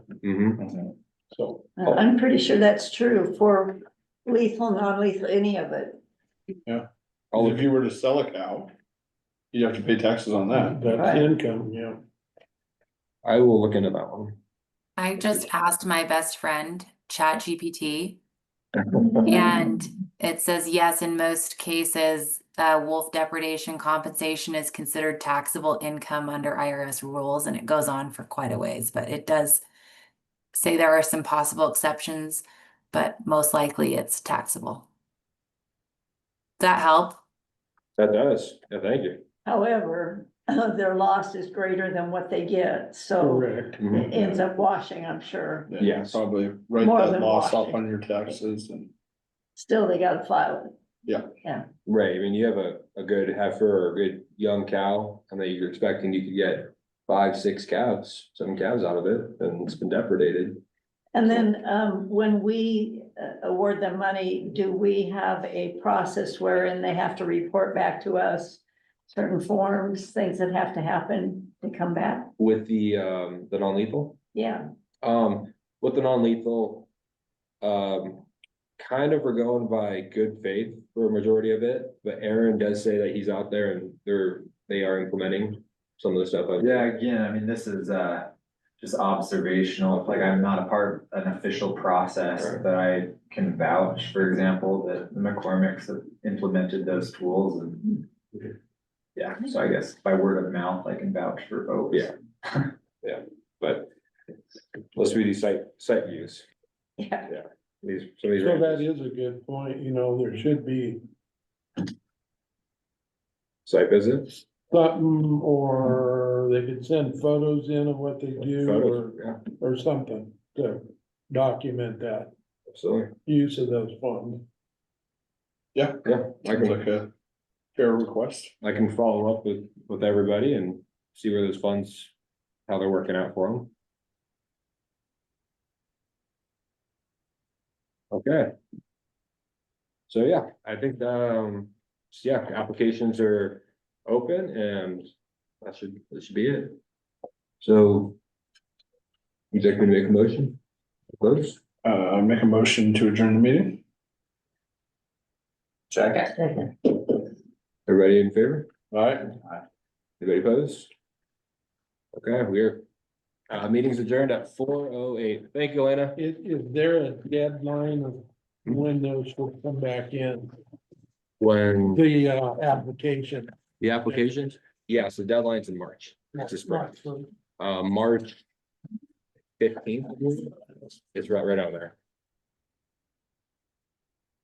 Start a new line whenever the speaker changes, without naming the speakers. Mhm.
Mm-hmm.
Uh-huh.
So,
I- Uh, I'm pretty sure that's true for lethal, non-lethal, any of it.
All
if you were to sell a cow, you'd have to pay taxes on that.
that's income, yeah.
I will look into that one.
I just asked my best friend, ChatGPT, and it says, yes, in most cases, uh, wolf depredation compensation is considered taxable income under IRS rules, and it goes on for quite a ways, but it does say there are some possible exceptions, but most likely it's taxable. Does that help?
That does, yeah, thank you.
However, their loss is greater than what they get, so
Correct.
Mhm.
it ends up washing, I'm sure.
Yeah.
Probably write
More
that
than
loss off
washing.
on your taxes and,
Still, they gotta file it.
Right, I mean, you have a, a good heifer or a good young cow, and that you're expecting you could get five, six calves, seven calves out of it, and it's been depredated.
And then, um, when we uh, award them money, do we have a process wherein they have to report back to us? Certain forms, things that have to happen to come back?
With the, um, the non-lethal,
Yeah,
um, with the non-lethal, um, kind of we're going by good faith for a majority of it, but Aaron does say that he's out there and they're, they are implementing some of the stuff. I've-
Yeah, again, I mean, this is uh just observational, like I'm not a part of an official process
Right.
that I can vouch, for example, that McCormick's have implemented those tools and
Okay.
yeah, so I guess by word of mouth, I can vouch for folks.
Yeah. But let's do these site, site views,
yeah.
these, some of these.
So that
ranches.
is a good point, you know, there should be
Site visit.
something, or they could send photos in of what they do, or,
Photos, yeah,
or something to document that
absolutely.
use of those funds.
yeah,
Yeah, I
it's
can,
like a fair request.
I can follow up with, with everybody and see where those funds, how they're working out for them. Okay. So, yeah, I think, um, so, yeah, applications are open and that should, that should be it. So. Would you like me to make a motion? Close?
Uh, make a motion to adjourn the meeting?
Everybody in favor?
All right,
Anybody opposed? Okay, we're, uh, meeting's adjourned at four oh eight. Thank you, Elena.
Is, is there a deadline of when those will come back in,
When
the, uh, application?
the applications, yeah, so deadline's in March, That's just right. uh, March fifteenth is right, right out there.